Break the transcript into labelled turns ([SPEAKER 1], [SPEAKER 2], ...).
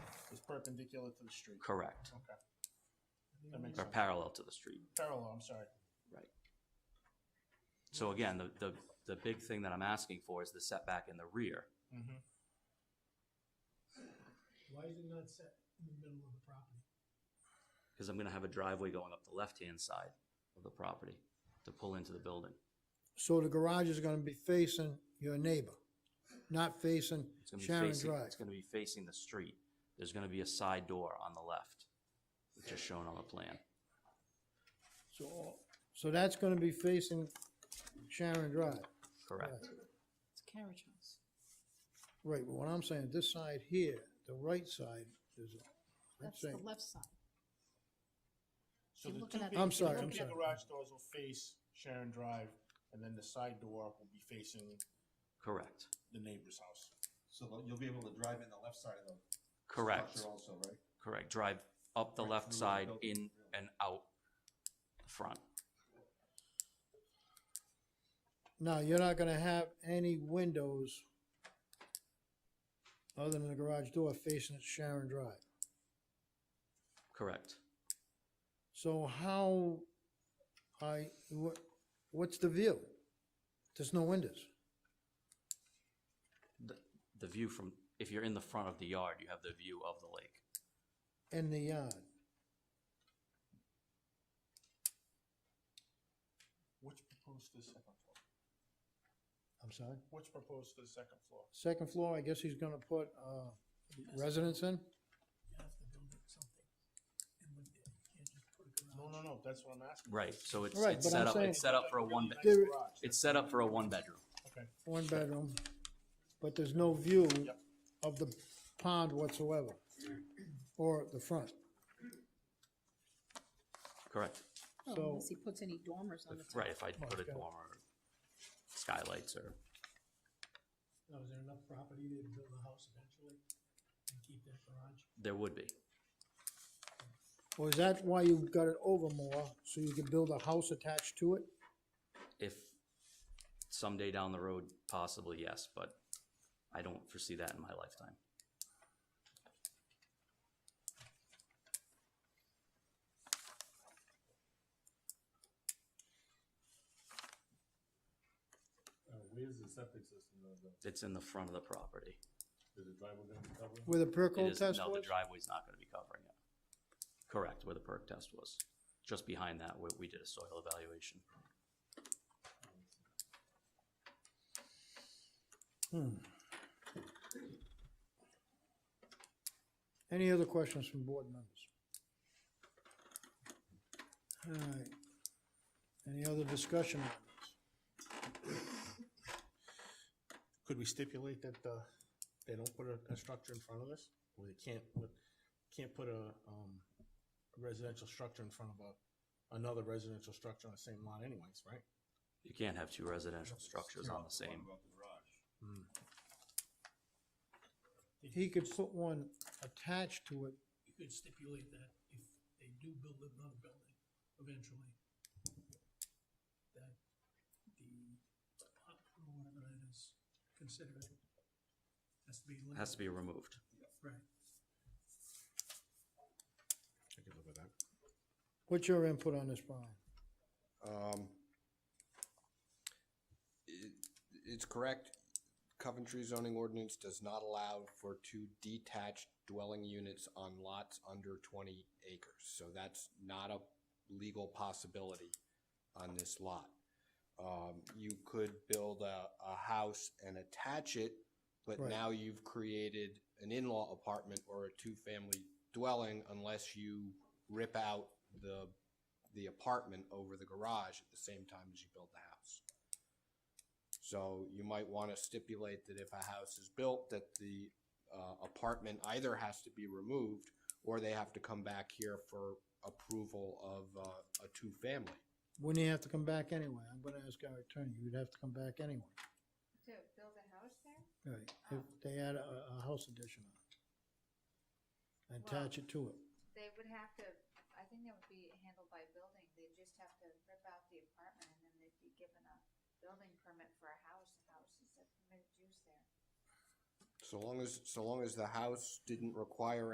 [SPEAKER 1] perpendicular to the street.
[SPEAKER 2] Correct.
[SPEAKER 1] Okay. That makes
[SPEAKER 2] Or
[SPEAKER 1] sense.
[SPEAKER 2] parallel to the street.
[SPEAKER 1] Parallel, I'm sorry.
[SPEAKER 2] So again, the, the, the big thing that I'm asking for is the setback in the rear.
[SPEAKER 1] Mm-hmm.
[SPEAKER 3] Why is it not set in the middle of the property?
[SPEAKER 2] Because I'm gonna have a driveway going up the left-hand side of the property to pull into the building.
[SPEAKER 4] So the garage is gonna be facing your neighbor, not facing
[SPEAKER 2] It's gonna be
[SPEAKER 4] Sharon
[SPEAKER 2] facing-
[SPEAKER 4] Drive.
[SPEAKER 2] It's gonna be facing the street. There's gonna be a side door on the left, which is shown on the plan.
[SPEAKER 4] So, all- so that's gonna be facing Sharon Drive.
[SPEAKER 2] Correct.
[SPEAKER 5] It's a carriage house.
[SPEAKER 4] Right, but what I'm saying, this side here, the right side is, I'm
[SPEAKER 5] That's the
[SPEAKER 4] saying,
[SPEAKER 5] left side.
[SPEAKER 1] So
[SPEAKER 5] You're
[SPEAKER 1] the
[SPEAKER 5] looking
[SPEAKER 1] two
[SPEAKER 5] at
[SPEAKER 1] big-
[SPEAKER 5] the-
[SPEAKER 4] I'm
[SPEAKER 1] the
[SPEAKER 4] sorry,
[SPEAKER 1] two
[SPEAKER 4] I'm
[SPEAKER 1] big
[SPEAKER 4] sorry.
[SPEAKER 1] Garage doors will face Sharon Drive, and then the side door will be facing
[SPEAKER 2] Correct.
[SPEAKER 1] the neighbor's house.
[SPEAKER 6] So that you'll be able to drive in the left side of the
[SPEAKER 2] Correct.
[SPEAKER 6] structure also, right?
[SPEAKER 2] Correct. Drive up the
[SPEAKER 6] Right
[SPEAKER 2] left
[SPEAKER 6] through the
[SPEAKER 2] side,
[SPEAKER 6] building,
[SPEAKER 2] in
[SPEAKER 6] really.
[SPEAKER 2] and out the front.
[SPEAKER 4] now, you're not gonna have any windows other than the garage door facing Sharon Drive.
[SPEAKER 2] Correct.
[SPEAKER 4] So how, I, what, what's the view? There's no windows.
[SPEAKER 2] The, the view from, if you're in the front of the yard, you have the view of the lake.
[SPEAKER 4] in the yard.
[SPEAKER 1] What's proposed to the second floor?
[SPEAKER 4] I'm sorry?
[SPEAKER 1] What's proposed to the second floor?
[SPEAKER 4] Second floor, I guess he's gonna put, uh, residence in?
[SPEAKER 3] You have to build it something. And when, you can't just put a garage.
[SPEAKER 1] No, no, no, that's what I'm asking.
[SPEAKER 2] Right, so it's,
[SPEAKER 4] Right,
[SPEAKER 2] it's
[SPEAKER 4] but
[SPEAKER 2] set
[SPEAKER 4] I'm
[SPEAKER 2] up,
[SPEAKER 4] saying-
[SPEAKER 2] it's set up for a one, bed.
[SPEAKER 4] There-
[SPEAKER 2] it's set up for a one bedroom.
[SPEAKER 1] Okay,
[SPEAKER 4] One bedroom, but there's no view
[SPEAKER 1] Yep.
[SPEAKER 4] of the pond whatsoever, or the front.
[SPEAKER 2] Correct.
[SPEAKER 5] Oh,
[SPEAKER 4] So-
[SPEAKER 5] Unless he puts any dormers on the top.
[SPEAKER 2] Right, if I put a
[SPEAKER 4] Oh, Okay.
[SPEAKER 2] dormer, or skylights or,
[SPEAKER 3] Now, is there enough property there to build a house eventually and keep that garage?
[SPEAKER 2] there would be.
[SPEAKER 4] Or is that why you got it over more, so you could build a house attached to it?
[SPEAKER 2] If someday down the road, possibly yes, but I don't foresee that in my lifetime.
[SPEAKER 6] Uh, Where's the septic system gonna go?
[SPEAKER 2] It's in the front of the property.
[SPEAKER 6] Is the driveway gonna be covered?
[SPEAKER 4] Where the
[SPEAKER 2] It
[SPEAKER 4] percolate
[SPEAKER 2] is,
[SPEAKER 4] test
[SPEAKER 2] no, the
[SPEAKER 4] was?
[SPEAKER 2] driveway's not gonna be covering it. Correct, where the perk test was. Just behind that, where we did a soil evaluation.
[SPEAKER 4] Any other questions from board members? All right. Any other discussion on this?
[SPEAKER 1] could we stipulate that, uh, they don't put a, a structure in front of us? Or they can't, put can't put a, um, residential structure in front of a, another residential structure on the same lot anyways, right?
[SPEAKER 2] You can't have two residential structures on the same.
[SPEAKER 6] About the garage.
[SPEAKER 4] He could put one attached to it,
[SPEAKER 3] You could stipulate that if they do build another building eventually, that the pot or whatever that is, consider it, has to be.
[SPEAKER 2] Has to be removed.
[SPEAKER 3] Right.
[SPEAKER 1] I could live with that.
[SPEAKER 4] What's your input on this, Brian?
[SPEAKER 7] Um, it, it's correct. Coventry zoning ordinance does not allow for two detached dwelling units on lots under twenty acres. So that's not a legal possibility on this lot. Um, you could build a, a house and attach it, but
[SPEAKER 4] Right.
[SPEAKER 7] now you've created an in-law apartment or a two-family dwelling unless you rip out the the apartment over the garage at the same time as you build the house. So you might want to stipulate that if a house is built, that the uh, apartment either has to be removed or they have to come back here for approval of uh, a two-family.
[SPEAKER 4] Wouldn't you have to come back anyway? I'm gonna ask our attorney, you'd have to come back anyway.
[SPEAKER 8] To build a house there?
[SPEAKER 4] Right, if they add a, a house addition on it. and Attach it to it.
[SPEAKER 8] They would have to, I think that would be handled by building, they'd just have to rip out the apartment and then they'd be given a building permit for a house, the house is a permitted use there.
[SPEAKER 7] So long as, so long as the house didn't require